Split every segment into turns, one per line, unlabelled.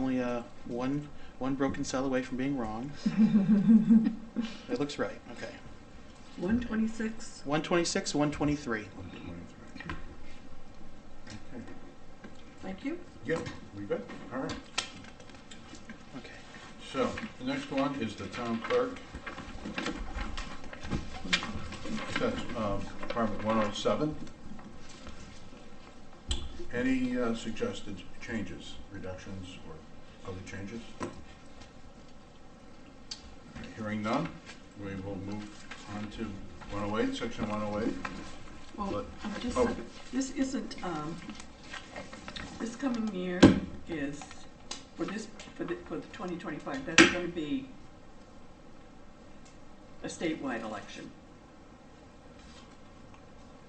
uh, one one broken cell away from being wrong. It looks right. Okay.
126.
126, 123.
Okay.
Thank you.
Yep, we good, all right.
Okay.
So, the next one is the town clerk. That's um, Department 107. Any uh, suggested changes, reductions, or other changes? Hearing none, we will move on to 108, Section 108.
Well,
What?
I'm just,
Oh.
this isn't, um, this coming year is, for this, for the, for the 2025, that's going to be a statewide election.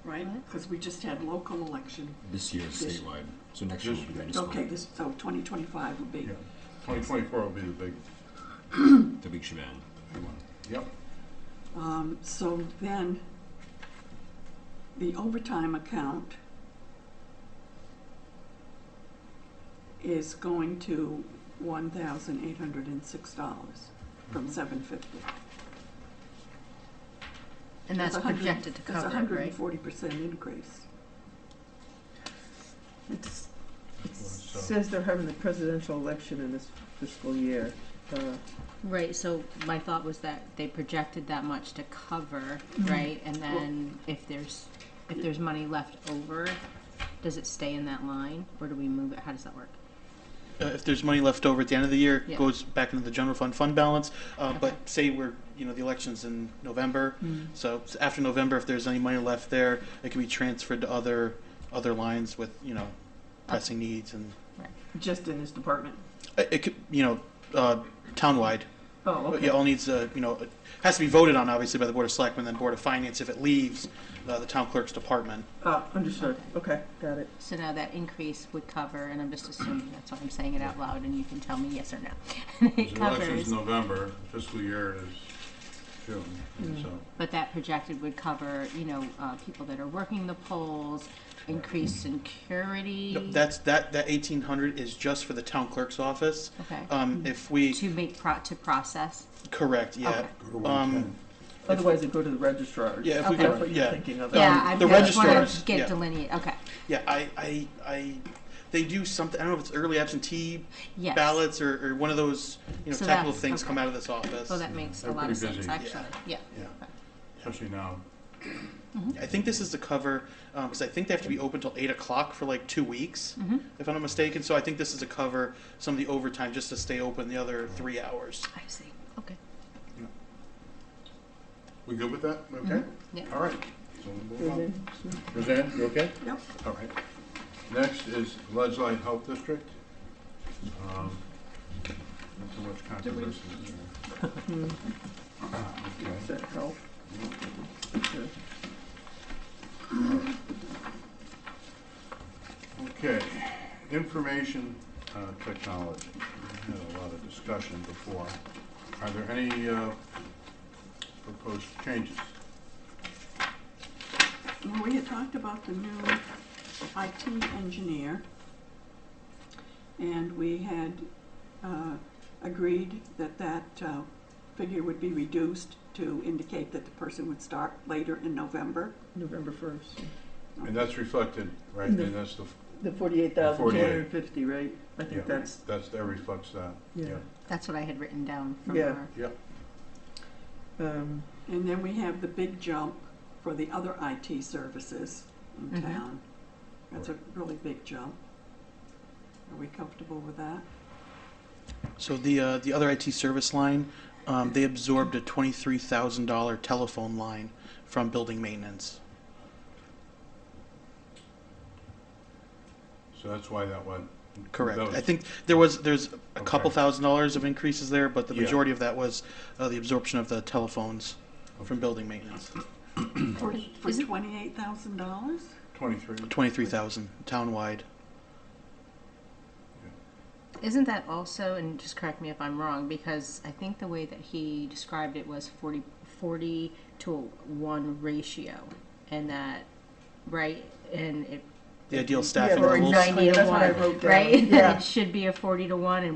Right?
What?
Because we just had local election.
This year is
This-
statewide, so next year will be municipal.
Okay, this, so 2025 would be.
Yeah, 2024 will be the big
The big shebang.
big one. Yep,
Um, so then, the overtime account is going to one thousand eight hundred and six dollars
Mm-hmm.
from seven fifty.
And that's projected to
That's a
cover it,
hundred and
right?
forty percent increase. It's,
It so-
Says they're having the presidential election in this fiscal year. Uh,
Right, so my thought was that they projected that much to cover,
Mm-hmm.
right? And then if there's, if there's money left over, does it stay in that line or do we move it? How does that work?
Uh, if there's money left over at the end of the year, it
Yeah.
goes back into the general fund fund balance. Uh,
Okay. Mm-hmm.
But say we're, you know, the election's in November. So s- after November, if there's any money left there, it can be transferred to other other lines with, you know,
Uh,
pressing needs and
just in this department.
it, it could, you know, uh, townwide.
Oh,
It all needs, a, you know, it has to be voted on, obviously, by the Board of Selectmen, then Board of Finance if it leaves uh, the town clerk's department.
Uh,
ah, understood. Okay, got it.
So now that increase would cover, and I'm just assuming, that's why I'm saying it out loud and you can tell me yes or no. It
The election's
covers,
November, fiscal year is June, so.
but that projected would cover, you know, uh, people that are working the polls, increased security.
No, That's, that, that eighteen hundred is just for the town clerk's office.
Okay.
Um, if we,
To make pro, to process.
correct, yeah.
Mm-hmm. Okay.
Um,
Otherwise, it go to the registrar.
Yeah, if we
Okay.
That's
could,
what you're
yeah.
thinking of.
Yeah,
Um,
I
the
just wanna
registrars, yeah.
get delineated, okay,
Yeah, I, I, I, they do something, I don't know if it's early absentee
yes.
ballots or, or one of those, you know,
So
technical
that's-
things
okay.
come out of this office.
Well, Oh, that makes a
They're
lot of
pretty
sense,
busy.
actually, yeah.
Yeah, especially now.
I think this is to cover, um 'cause because I think they have to be open till eight o'clock for like two weeks,
Mm-hmm.
if I'm not mistaken. So I think this is to cover some of the overtime just to stay open the other three hours.
I see, okay.
We good with that?
Mm-hmm.
Okay?
Yeah.
All right. So we'll move on. Roseanne, you okay?
Yep.
All right. Next is Ledgely Health District. Um, Not so much controversy there.
Does
Okay.
that help? Sure.
Okay, information uh, technology. We had a lot of discussion before. Are there any uh, proposed changes?
Well, we had talked about the new IT engineer, and we had uh, agreed that that uh, figure would be reduced to indicate that the person would start later in November.
November first.
And that's reflected, right, and that's the,
The forty-eight thousand two hundred
48.
and fifty, right? I
Yeah.
think that's,
that's, that reflects that.
yeah.
That's what I had written down from
Yeah.
our,
Yep.
Um,
And then we have the big jump for the other IT services in
Mhm.
town. That's a really big jump. Are we comfortable with that?
So the uh, the other IT service line, um, they absorbed a twenty three thousand dollar telephone line from building maintenance.
So that's why that went.
Correct.
that was-
I think there was there's a couple
Okay.
thousand dollars of increases there, but the
Yeah.
majority of that was uh, the absorption of the telephones
Okay.
from building maintenance.
Mm.
For for
Is it-
twenty-eight thousand dollars?
Twenty-three.
Twenty three thousand townwide.
isn't that also, and just correct me if I'm wrong, because I think the way that he described it was 40, 40 to one ratio, and that, right, and it.
The ideal staffing
Yeah,
Or
well,
levels.
exactly,
ninety to
that's what I
one,
wrote down,
right?
yeah.
It should be a forty to one, and